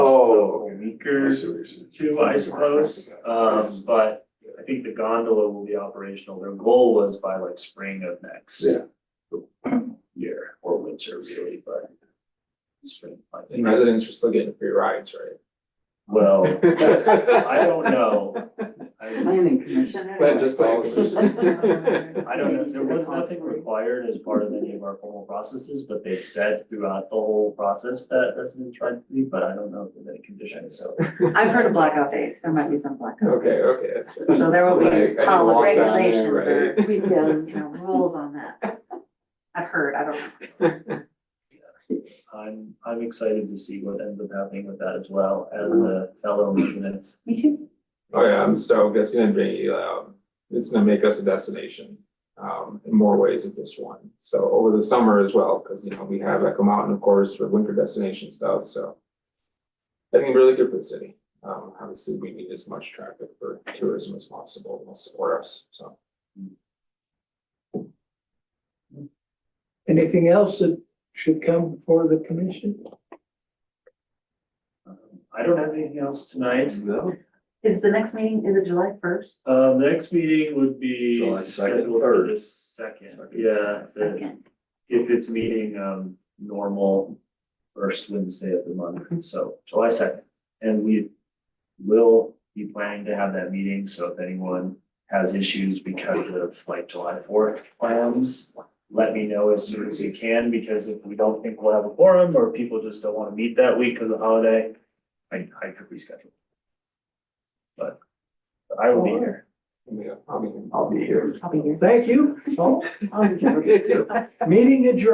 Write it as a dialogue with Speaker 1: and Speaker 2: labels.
Speaker 1: weaker too, I suppose. Um, but I think the gondola will be operational. Their goal was by like spring of next
Speaker 2: Yeah.
Speaker 1: year or winter really, but spring, I
Speaker 3: And
Speaker 1: think.
Speaker 3: residents are still getting free rides, right?
Speaker 1: Well, I don't know. I,
Speaker 4: Planning commission.
Speaker 3: But just follows.
Speaker 1: I don't know. There was nothing required as part of any of our formal processes, but they've said throughout the whole process that residents tried to be, but I don't know if there's any conditions, so.
Speaker 4: I've heard of blackout dates, there might be some blackout
Speaker 3: Okay,
Speaker 4: dates.
Speaker 3: okay, that's fair.
Speaker 4: So there will
Speaker 3: Like, I need
Speaker 4: be
Speaker 3: to
Speaker 4: all the
Speaker 3: walk down there,
Speaker 4: regulations or,
Speaker 3: right?
Speaker 4: you know, rules on that. I've heard, I don't know.
Speaker 1: I'm, I'm excited to see what ends up happening with that as well as a fellow resident.
Speaker 4: Me too.
Speaker 3: Oh yeah, I'm stoked, that's gonna be, um, it's gonna make us a destination, um, in more ways than just one. So over the summer as well, cause you know, we have Echo Mountain, of course, for winter destination stuff, so. I think really good for the city, um, obviously, we need as much traffic for tourism as possible, and will support us, so.
Speaker 5: Anything else that should come before the commission?
Speaker 1: Um, I don't have anything else tonight.
Speaker 2: No.
Speaker 4: Is the next meeting, is it July first?
Speaker 1: Uh, the next meeting would be.
Speaker 2: July second,
Speaker 1: scheduled for
Speaker 2: third.
Speaker 1: the Second, yeah, the-
Speaker 4: Second.
Speaker 1: if it's meeting, um, normal first Wednesday of the month, so July second. And we will be planning to have that meeting, so if anyone has issues because of like July fourth plans, let me know as soon as you can, because if we don't think we'll have a forum, or people just don't wanna meet that week because of holiday, I, I could reschedule. But but I will be here.
Speaker 3: Yeah, I'll be.
Speaker 2: I'll be here.
Speaker 4: I'll be here.
Speaker 5: Thank you. So,
Speaker 4: I'll be here.
Speaker 5: meeting adjourned.